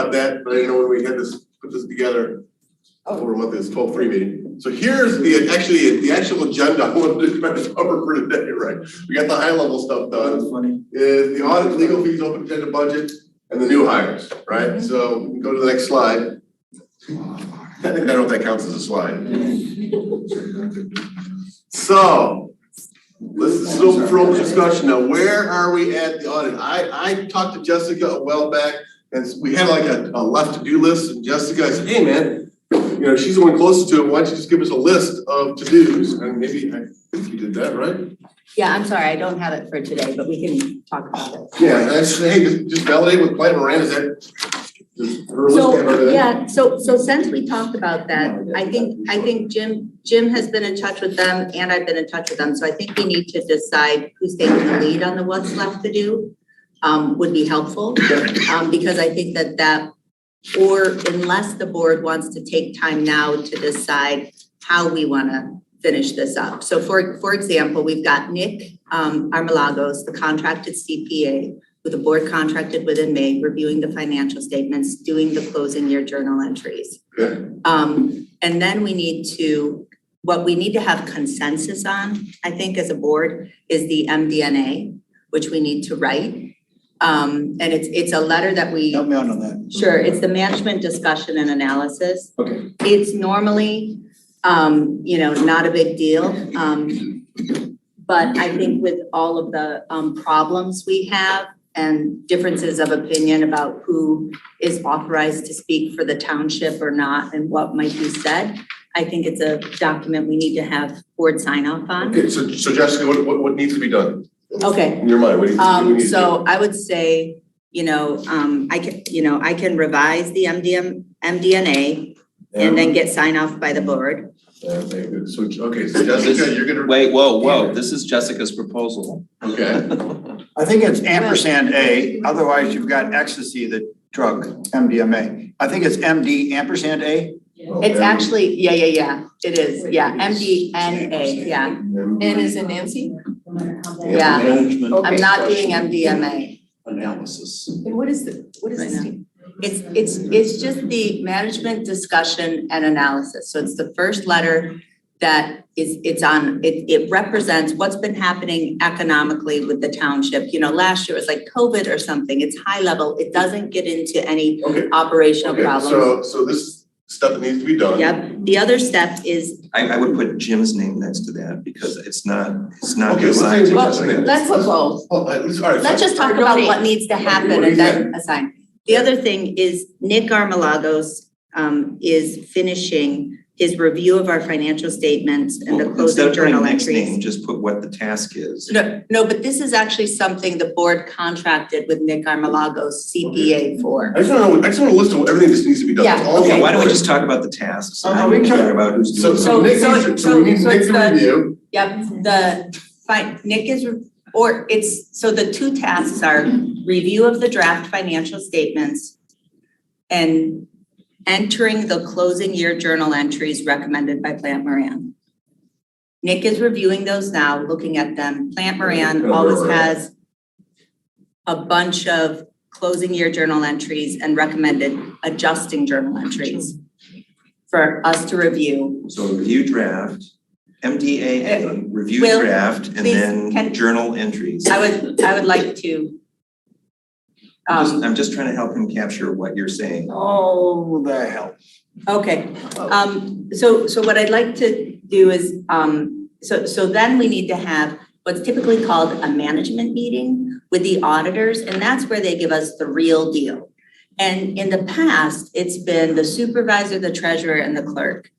about that, but I didn't know when we had this, put this together over a month, this twelve three meeting. So here's the, actually, the actual agenda I wanted to try to cover for today, right? We got the high level stuff done. That's funny. Is the audit, legal fees, open agenda budget, and the new hires, right? So we can go to the next slide. I think, I don't know if that counts as a slide. So, this is still from discussion, now where are we at the audit? I, I talked to Jessica a while back, and we had like a, a left to-do list, and Jessica said, hey, man, you know, she's the one closest to it, why don't you just give us a list of to-dos, and maybe, I think you did that, right? Yeah, I'm sorry, I don't have it for today, but we can talk about it. Yeah, and I said, hey, just- just validate with Plant Moran, is that? is her list that So, or that? yeah, so, so since we talked about that, I think, I think Jim, Jim has been in touch with them and I've been in touch with them. So I think we need to decide who's taking the lead on the what's left to do, um, would be helpful. Um, because I think that that, or unless the board wants to take time now to decide how we want to finish this up. So for, for example, we've got Nick, um, Armalagos, the contracted CPA who the board contracted with in May, reviewing the financial statements, doing the closing year journal entries. Okay. Um, and then we need to, what we need to have consensus on, I think, as a board, is the MDNA, which we need to write. Um, and it's, it's a letter that we. Help me out on that. Sure, it's the management discussion and analysis. Okay. It's normally, um, you know, not a big deal, um. But I think with all of the, um, problems we have and differences of opinion about who is authorized to speak for the township or not and what might be said, I think it's a document we need to have board sign off on. Okay, so, so Jessica, what, what, what needs to be done, Okay, in your mind, what do you, what do you um, need to do? so I would say, you know, um, I can, you know, I can revise the MDM, MDNA and then get sign off by the board. Okay, good, so, okay, so Jessica, you're gonna, Wait, whoa, whoa, this is Jessica's proposal. okay. I think it's ampersand A, otherwise you've got ecstasy, the drug, MDMA. I think it's MD ampersand A. It's actually, yeah, yeah, yeah, it is, yeah, MDNA, yeah, N is in Nancy? yeah. Management I'm not doing MDMA. analysis. And what is the, what is Right this? now. It's, it's, it's just the management discussion and analysis, so it's the first letter that is, it's on, it, it represents what's been happening economically with the township. You know, last year was like COVID or something, it's high level, it doesn't get into any Okay, operational okay, problems. so, so this stuff needs to be done. Yep, the other step is, I, I would put Jim's name next to that because it's not, it's not. Okay, so designed to Well, just- Let's put both. Oh, I- it's- all right, let's fine. just talk about what Donate. needs to happen What is and then assign. The other thing is Nick Armalagos um is finishing his review of our financial statements and the Well, Oh, closing instead of putting journal next entries. name, just put what the task is. No, no, but this is actually something the board contracted with Nick Armalagos CPA for. I just wanna know, I just wanna list of everything that needs to be done, that's Yeah, all. Okay, why don't we just talk about the tasks? and Uh-huh, how we we can- care about who's So, doing. so So- Nick so- needs to, so so- we need so Nick it's to the- review, Yep, the, fine, Nick is, or it's, so the two tasks are review of the draft financial statements and entering the closing year journal entries recommended by Plant Moran. Nick is reviewing those now, looking at them. Plant Moran always has a bunch of closing year journal entries and recommended adjusting journal entries for us to review So review draft, MDA, review Uh, Will, draft, and please, can- then journal entries. I would, I would like to. I'm just- Um, I'm just trying to help him capture what you're saying. Oh, the hell. okay, um, so, so what I'd like to do is, um, so, so then we need to have what's typically called a management meeting with the auditors, and that's where they give us the real deal. And in the past, it's been the supervisor, the treasurer, and the clerk.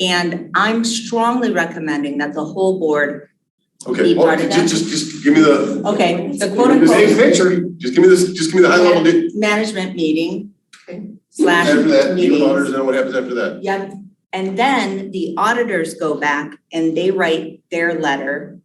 And I'm strongly recommending that the whole board, okay, Be well, part of just, that. just, just give me the, okay, the quote the big unquote picture, just give me this, just give me the high level, di- management meeting Okay. slash after that, you meetings. and auditors, and what happens after that? Yep, and then the auditors go back and they write their letter.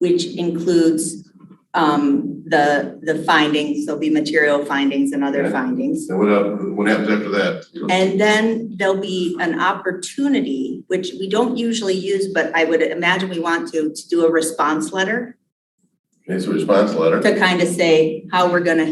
Which includes um the the findings, there'll be material findings and other Yeah. findings. And what, up- what happens after that? And then there'll be an opportunity, which we don't usually use, but I would imagine we want to, to do a response letter. Okay, so response letter. To kind of say how we're gonna